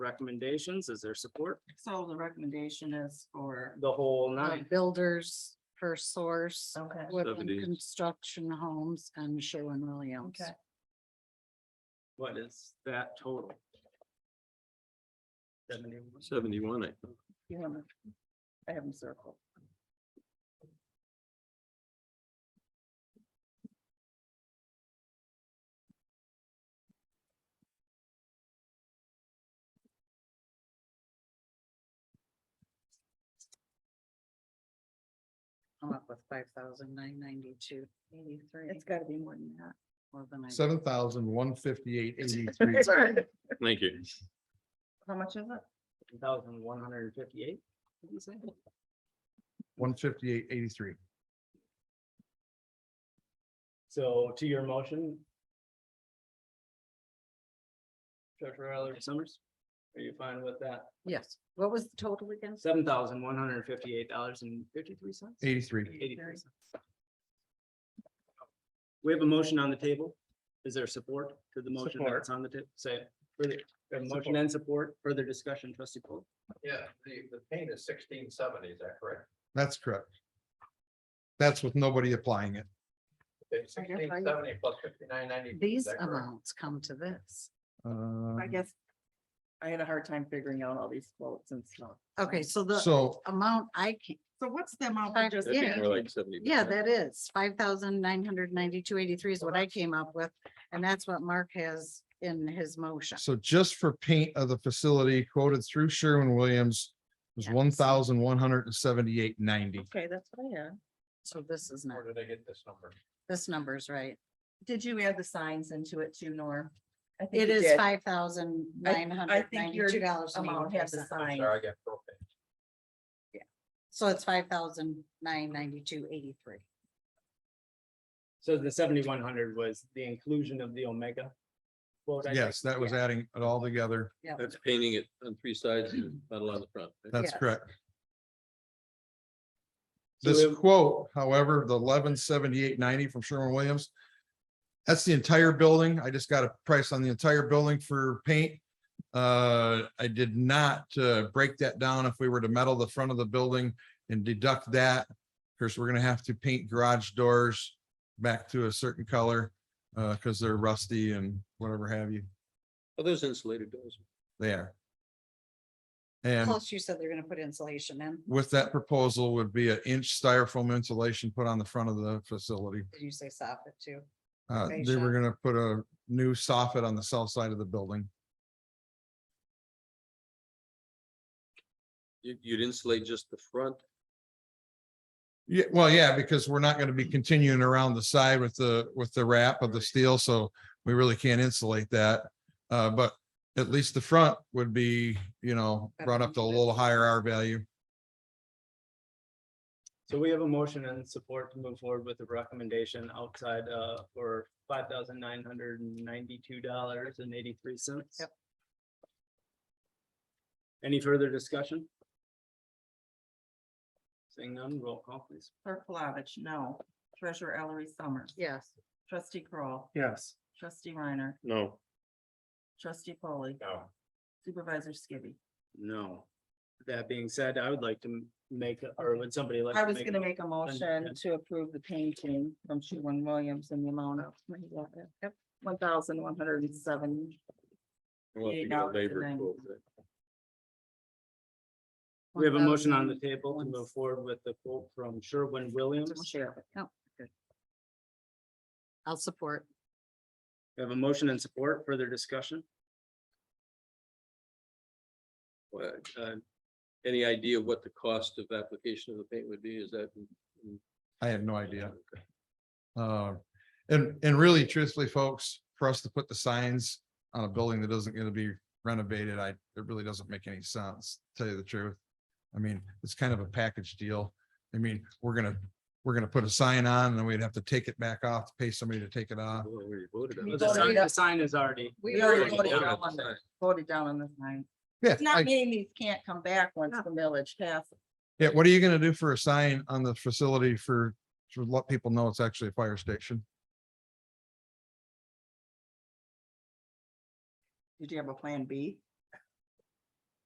recommendations. Is there support? So the recommendation is for The whole uh, nine. builders for source, Okay. Woodland 70s. Construction Homes and Sherwin Williams. Okay. What is that total? Seventy-one. Seventy-one, I think. You want to, I have them circled. I'm up with five thousand nine ninety-two eighty-three. It's gotta be more than that. More than I. seven thousand one fifty-eight eighty-three. Thank you. How much is it? Thousand one hundred and fifty-eight. One fifty-eight eighty-three. So to your motion. Treasurer Ellery Summers, are you fine with that? Yes. What was the total again? Seven thousand one hundred and fifty-eight dollars and fifty-three cents? Eighty-three. Eighty-three cents. We have a motion on the table. Is there support to the motion Support. that's on the table? Say, it. further, we have a motion and support, further discussion, trustee Paul. Yeah, the, the paint is sixteen seventy, is that correct? That's correct. That's with nobody applying it. I guess I- Sixteen seventy plus fifty-nine ninety. These amounts come to this. I Uh, guess I had a hard time figuring out all these quotes and stuff. Okay, so the so amount I can, So what's the amount? Five- that just- I think Yeah. we're like seventy. yeah, that is five thousand nine hundred ninety-two eighty-three is what I came up with. And that's what Mark has in his motion. So just for paint of the facility quoted through Sherwin-Williams was Yes. one thousand one hundred and seventy-eight ninety. Okay, that's what I had. So this is not, Where did I get this number? this number's right. Did you add the signs into it too, Norm? I think It you is did. five thousand nine hundred ninety-two dollars. Amount has the sign. Sorry, I got propane. So it's five thousand nine ninety-two eighty-three. So the seventy-one hundred was the inclusion of the Omega. quote, I think? Yes, that was adding it all together. That's painting it on three sides and metal on the front. right? That's Yes. correct. So This it- quote, however, the eleven seventy-eight ninety from Sherwin-Williams. That's the entire building. I just got a price on the entire building for paint. Uh, I did not, uh, break that down if we were to metal the front of the building and deduct that. Of course, we're gonna have to paint garage doors back to a certain color, uh, because they're rusty and whatever have you. Are those insulated doors? They are. And. Plus you said they're gonna put insulation in. with that proposal would be an inch styrofoam insulation put on the front of the facility. Did you say soffit too? Uh, Okay, they were sure. gonna put a new soffit on the south side of the building. You, you'd insulate just the front? Yeah, well, yeah, because we're not gonna be continuing around the side with the, with the wrap of the steel, so we really can't insulate that. Uh, but at least the front would be, you know, brought up to a little higher R value. So we have a motion and support to move forward with the recommendation outside uh for five thousand nine hundred and ninety-two dollars and eighty-three cents. Yep. Any further discussion? Seeing none, roll call please. Clerk Flavich, no. Treasurer Ellery Summers. Yes. Trustee Kroll, Yes. Trustee Reiner. No. Trustee Polly. No, Supervisor Skibby. No. That being said, I would like to m- make, a- or would somebody like? I to was a gonna make a motion motion. to approve the painting from Sherwin Williams in the amount of. One thousand one hundred and seven. Well, if you Yeah, got dollars and labor then- quote, right? We have a motion on the 1,000. table to move forward with the quote from Sherwin Williams. Sheriff. Oh, I'll support. We have a motion and support, further discussion? Well, uh, Any idea what the cost of application of the paint would be? Is that? I have no idea. Uh, and, and really truthfully, folks, for us to put the signs on a building that isn't gonna be renovated, I, it really doesn't make any sense, to tell you the truth. I mean, it's kind of a package deal. I mean, we're gonna, we're gonna put a sign on and then we'd have to take it back off, pay somebody to take it off. Well, we voted on The it. sign, the sign is already. We already already voted voted down on on that. the, voted down on this line. Yeah, It's not I- meaning these can't come back once the millage passes. yeah, what are you gonna do for a sign on the facility for, to let people know it's actually a fire station? Did you have a plan B?